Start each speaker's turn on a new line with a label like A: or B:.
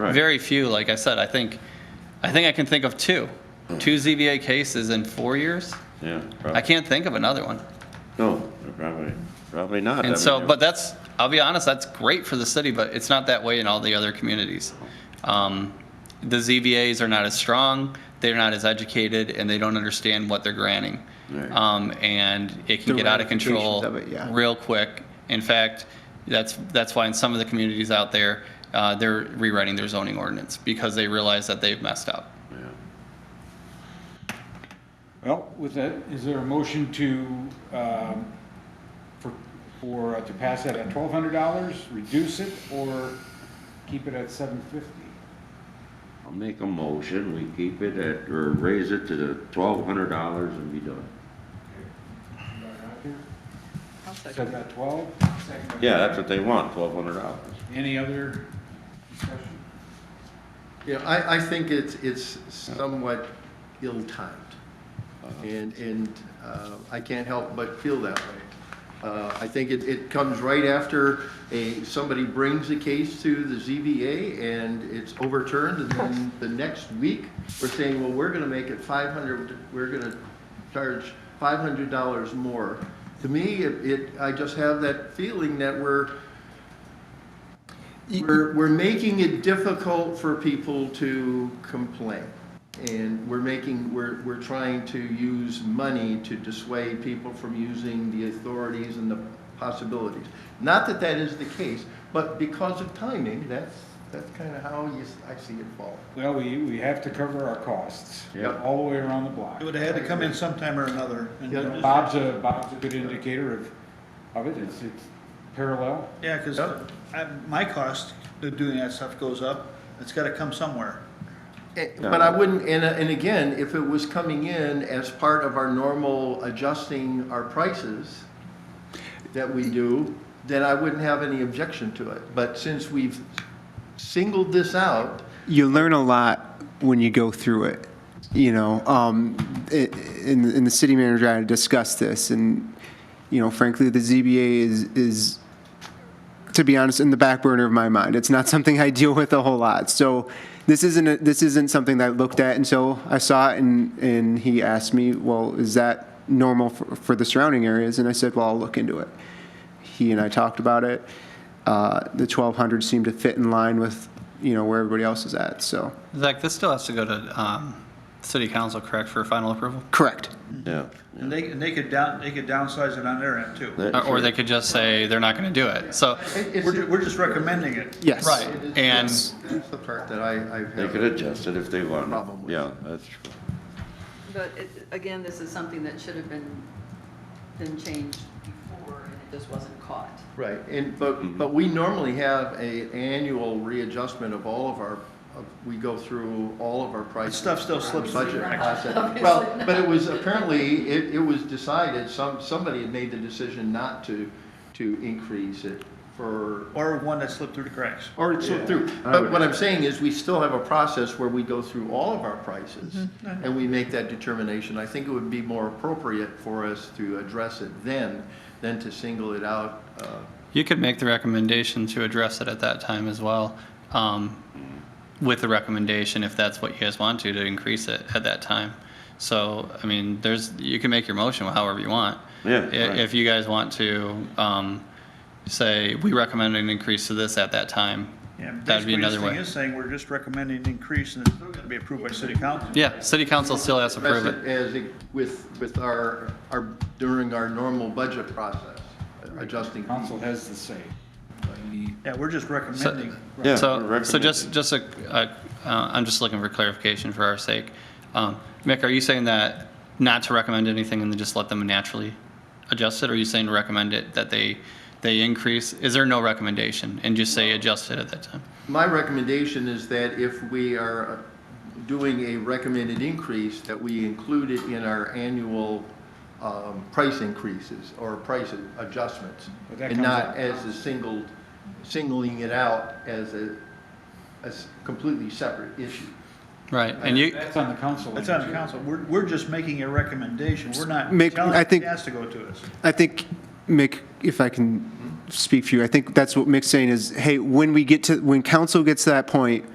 A: Right.
B: Very few, like I said, I think, I think I can think of two,
A: Hmm.
B: two ZBA cases in four years.
A: Yeah,
B: I
A: probably,
B: can't think of another one.
A: no, probably, probably not. I
B: And
A: mean,
B: so,
A: there-
B: but that's, I'll be honest, that's great for the city, but it's not that way in all the other communities. Um, The ZBAs are not as strong, they're not as educated, and they don't understand what they're granting.
A: Right.
B: Um, And it can
C: The
B: get out of control
C: ramifications of it, yeah.
B: real quick. In fact, that's, that's why in some of the communities out there, uh, they're rewriting their zoning ordinance because they realize that they've messed up.
D: Well, with that, is there a motion to, um, for, for, uh, to pass that at twelve hundred dollars, reduce it, or keep it at seven fifty?
A: I'll make a motion, we keep it at, or raise it to the twelve hundred dollars and be done.
D: Seven at twelve?
A: Yeah, that's what they want, twelve hundred dollars.
D: Any other discussion?
C: Yeah, I, I think it's, it's somewhat ill-timed. And, and uh, I can't help but feel that way. Uh, I think it, it comes right after a, somebody brings a case to the ZBA and it's overturned and then the next week, we're saying, well, we're gonna make it five hundred, we're gonna charge five hundred dollars more. To me, it, it, I just have that feeling that we're, we're, we're making it difficult for people to complain. And we're making, we're, we're trying to use money to dissuade people from using the authorities and the possibilities. Not that that is the case, but because of timing, that's, that's kind of how you, s- I see it fall.
D: Well, we, we have to cover our costs,
C: Yep.
D: all the way around the block.
E: It would have had to come in sometime or another. and-
C: Yeah.
D: Bob's a, Bob's a good indicator of, of it, it's, it's parallel.
E: Yeah, because
C: Yep.
E: my cost of doing that stuff goes up. It's got to come somewhere.
C: Eh, But I wouldn't, and, uh, and again, if it was coming in as part of our normal adjusting our prices that we do, then I wouldn't have any objection to it. But since we've singled this out,
F: you learn a lot when you go through it. You know, um, i- in in the city manager, I discussed this, and you know, frankly, the ZBA is is to be honest, in the back burner of my mind. It's not something I deal with a whole lot. So this isn't a, this isn't something that I looked at until I saw it, and and he asked me, well, is that normal for, for the surrounding areas? And I said, well, I'll look into it. He and I talked about it. Uh, the 1200 seemed to fit in line with you know where everybody else is at. So
B: Zach, this still has to go to um, city council, correct, for final approval?
F: correct.
A: Yeah.
E: And they, and they could down, they could downsize it on their end too.
A: That-
B: Or- Or they could just say they're not going to do it. So,
C: it-
E: We're, ju-
C: it's,
E: we're just recommending it.
F: Yes.
B: right, and.
C: that's the part that I, I
A: They
C: have
A: could
C: a
A: adjust it if they want.
C: problem with.
A: Yeah, that's true.
G: But it, again, this is something that should have been, been changed before, and it just wasn't caught.
C: Right, and, but, but we normally have a annual readjustment of all of our, of- we go through all of our prices.
E: Stuff still slips through
C: Budget
E: the cracks.
C: process. Well, but it was, apparently, it, it was decided, some, somebody had made the decision not to, to increase it for,
E: Or one that slipped through the cracks.
C: or it slipped through. But what I'm saying is, we still have a process where we go through all of our prices, and we make that determination. I think it would be more appropriate for us to address it then, than to single it out, uh,
B: You could make the recommendation to address it at that time as well, um, with the recommendation, if that's what you guys want to, to increase it at that time. So, I mean, there's, you can make your motion however you want.
A: Yeah,
B: I-
A: right.
B: If you guys want to um, say, we recommend an increase to this at that time,
E: Yeah,
B: that'd be
E: basically, this
B: another
E: thing
B: way.
E: is Saying we're just recommending an increase and it's still going to be approved by city council.
B: Yeah, city council still has to
C: address
B: prove it.
C: it as, it- with, with our, our, during our normal budget process, adjusting.
D: Council has the say.
E: Yeah, we're just recommending.
A: Yeah,
B: So,
A: we're
B: so just, just a, a- uh, I'm just looking for clarification for our sake. Um, Mick, are you saying that not to recommend anything and then just let them naturally adjust it? Or are you saying to recommend it, that they, they increase? Is there no recommendation and just say adjust it at that time?
C: My recommendation is that if we are doing a recommended increase, that we include it in our annual, um, price increases or price adjustments.
D: But that
C: And
D: comes
C: not
D: out.
C: as a single, singling it out as a, as completely separate issue.
B: Right, and you,
D: That's on the council.
E: That's on the council. We're, we're just making a recommendation. We're not
F: Make-
E: telling
F: I
E: it
F: think-
E: has to go to us.
F: I think, Mick, if I can speak for you, I think that's what Mick's saying is, hey, when we get to, when council gets to that point